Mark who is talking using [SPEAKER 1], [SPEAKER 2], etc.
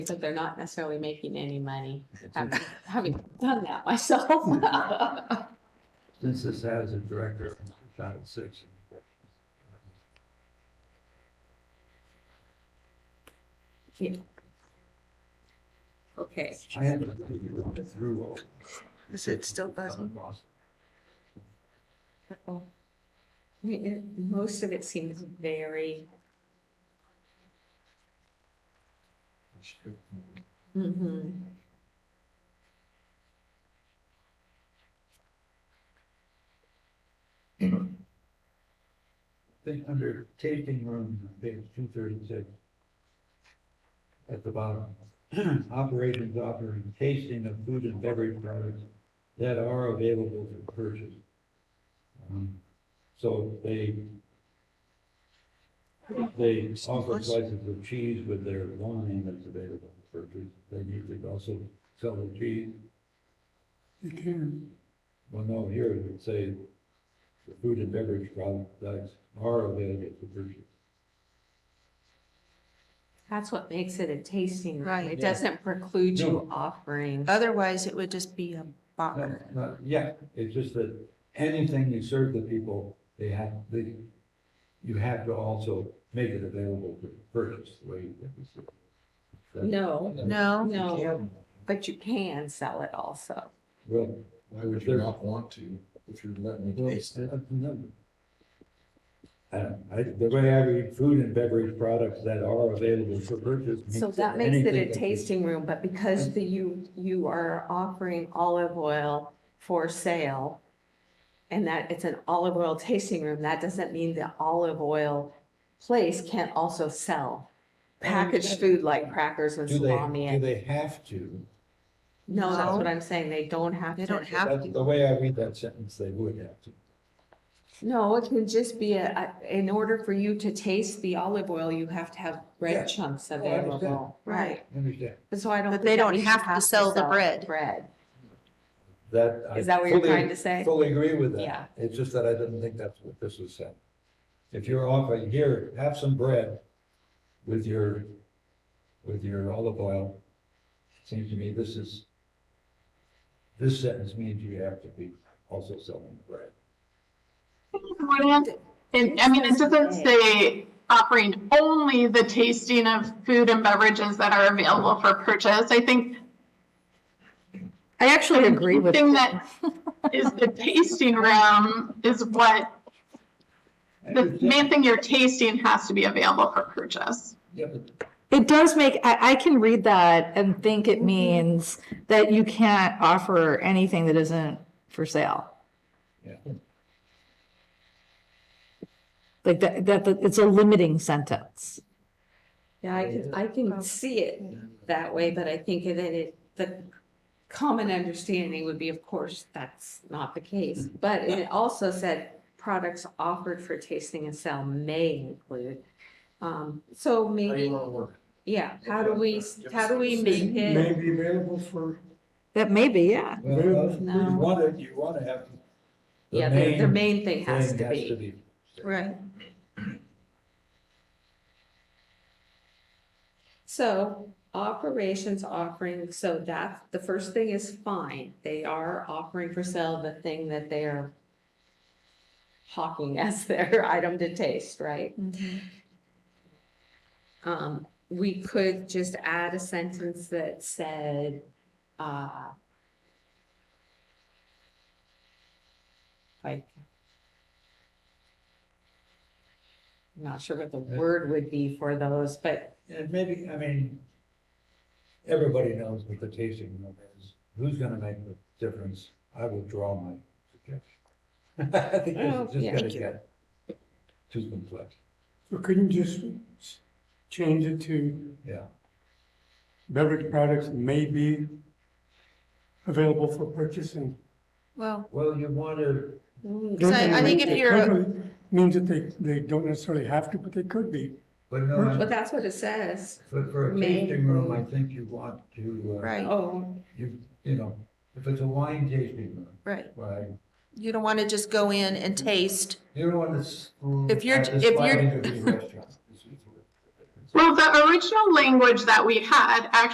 [SPEAKER 1] But they're not necessarily making any money,
[SPEAKER 2] Uh,
[SPEAKER 1] having, having done that myself. Hmm.
[SPEAKER 3] Since this has a director in Title Six.
[SPEAKER 2] Okay,
[SPEAKER 3] I had to look through all.
[SPEAKER 2] is it still buzzing? Uh-oh. I mean, it- Most of it seems very,
[SPEAKER 1] Mhm.
[SPEAKER 3] Thing under tasting room, page two thirty-six. At the bottom, operations offering tasting of food and beverage products that are available for purchase. Um, So they they offer slices of cheese with their wine that's available for purchase. They need to also sell the cheese.
[SPEAKER 4] You can,
[SPEAKER 3] Well, no, here it would say the food and beverage products are available for purchase.
[SPEAKER 1] That's what makes it a tasting room.
[SPEAKER 5] Right.
[SPEAKER 1] It
[SPEAKER 3] Yeah.
[SPEAKER 1] doesn't preclude you
[SPEAKER 3] No.
[SPEAKER 1] offering.
[SPEAKER 5] Uh, Otherwise, it would just be a
[SPEAKER 3] No,
[SPEAKER 5] bar.
[SPEAKER 3] no, Yeah, it's just that anything you serve the people, they have, they, you have to also make it available for purchase, the way that we see it. That-
[SPEAKER 2] no,
[SPEAKER 5] No,
[SPEAKER 1] No,
[SPEAKER 6] can.
[SPEAKER 1] but you can sell it also.
[SPEAKER 3] Well,
[SPEAKER 6] Why would you not want to if you're letting
[SPEAKER 3] well,
[SPEAKER 6] me taste it?
[SPEAKER 3] that's another. I don't, I, the way I read food and beverage products that are available for purchase.
[SPEAKER 1] So that makes it a tasting room, but because the, you, you are offering olive oil for sale and that it's an olive oil tasting room, that doesn't mean the olive oil place can't also sell packaged food like crackers and
[SPEAKER 3] Do they,
[SPEAKER 1] salami
[SPEAKER 3] do
[SPEAKER 1] and,
[SPEAKER 3] they have to?
[SPEAKER 1] no, that's
[SPEAKER 5] No.
[SPEAKER 1] what I'm saying, they don't have
[SPEAKER 5] they don't
[SPEAKER 1] to.
[SPEAKER 5] have
[SPEAKER 3] That's
[SPEAKER 5] to.
[SPEAKER 3] the way I read that sentence, they would have to.
[SPEAKER 1] No, it can just be a, a- in order for you to taste the olive oil, you have to have
[SPEAKER 3] Yeah. Oh,
[SPEAKER 1] bread chunks
[SPEAKER 3] I understand.
[SPEAKER 1] available. Right,
[SPEAKER 3] Understand?
[SPEAKER 1] But so I don't.
[SPEAKER 5] But
[SPEAKER 1] think that
[SPEAKER 5] they don't
[SPEAKER 1] means you
[SPEAKER 5] have to sell the bread.
[SPEAKER 1] Bread.
[SPEAKER 3] That. I
[SPEAKER 1] Is that what you're
[SPEAKER 3] fully-
[SPEAKER 1] trying to say?
[SPEAKER 3] Fully agree with that.
[SPEAKER 1] Yeah.
[SPEAKER 3] It's just that I didn't think that's what this was saying. If you're offering, here, have some bread with your, with your olive oil, seems to me this is, this sentence means you have to be also selling bread.
[SPEAKER 7] wouldn't, and I mean, it doesn't say offering only the tasting of food and beverages that are available for purchase. I think
[SPEAKER 5] I actually agree
[SPEAKER 7] the thing that is the tasting room is what, the main thing you're tasting has to be available for purchase.
[SPEAKER 3] Yeah, but
[SPEAKER 8] It does make, I, I can read that and think it means that you can't offer anything that isn't for sale.
[SPEAKER 3] Yeah.
[SPEAKER 8] Like that, that, that- it's a limiting sentence.
[SPEAKER 1] Yeah, I can, I can see it that way, but I think that it, the common understanding would be, of course, that's not the case. But it also said products offered for tasting and sale may include. Um, so
[SPEAKER 6] How do you
[SPEAKER 1] maybe,
[SPEAKER 6] wanna work?
[SPEAKER 1] yeah, how do we, how do we make
[SPEAKER 4] may
[SPEAKER 1] it?
[SPEAKER 4] be available for,
[SPEAKER 8] That may be, yeah.
[SPEAKER 3] well,
[SPEAKER 1] No.
[SPEAKER 3] You want it, you want to have. the
[SPEAKER 1] Yeah, the, the
[SPEAKER 3] main
[SPEAKER 1] main thing has
[SPEAKER 3] thing
[SPEAKER 1] to be.
[SPEAKER 5] right.
[SPEAKER 1] So operations offering, so that, the first thing is fine. They are offering for sale the thing that they are hawking as their item to taste, right?
[SPEAKER 5] Mm-hmm.
[SPEAKER 1] Um, we could just add a sentence that said, uh, like, I'm not sure what the word would be for those, but
[SPEAKER 3] And maybe, I mean, everybody knows what the tasting room is. Who's gonna make the difference? I will draw my suggestion. I think
[SPEAKER 1] Oh,
[SPEAKER 3] this is
[SPEAKER 1] yeah.
[SPEAKER 3] just gonna
[SPEAKER 5] Thank you.
[SPEAKER 3] get too complex,
[SPEAKER 4] you couldn't just s- change it to
[SPEAKER 3] yeah.
[SPEAKER 4] beverage products may be available for purchasing.
[SPEAKER 5] Well,
[SPEAKER 3] Well, you wanna,
[SPEAKER 1] mm,
[SPEAKER 5] So I- I think if you're a-
[SPEAKER 4] Means that they, they don't necessarily have to, but they could be.
[SPEAKER 3] but no, I-
[SPEAKER 1] But that's what it says.
[SPEAKER 3] but for a
[SPEAKER 1] Main
[SPEAKER 3] tasting room,
[SPEAKER 1] food.
[SPEAKER 3] I think you want to, uh,
[SPEAKER 5] right,
[SPEAKER 1] Oh,
[SPEAKER 3] you, you know, if it's a wine tasting room,
[SPEAKER 5] right.
[SPEAKER 3] right?
[SPEAKER 5] You don't want to just go in and taste.
[SPEAKER 3] You don't want to. s-
[SPEAKER 5] If you're-
[SPEAKER 3] at this
[SPEAKER 5] if
[SPEAKER 3] fine
[SPEAKER 5] you're-
[SPEAKER 3] interview restaurant.
[SPEAKER 7] Well, the original language that we had actually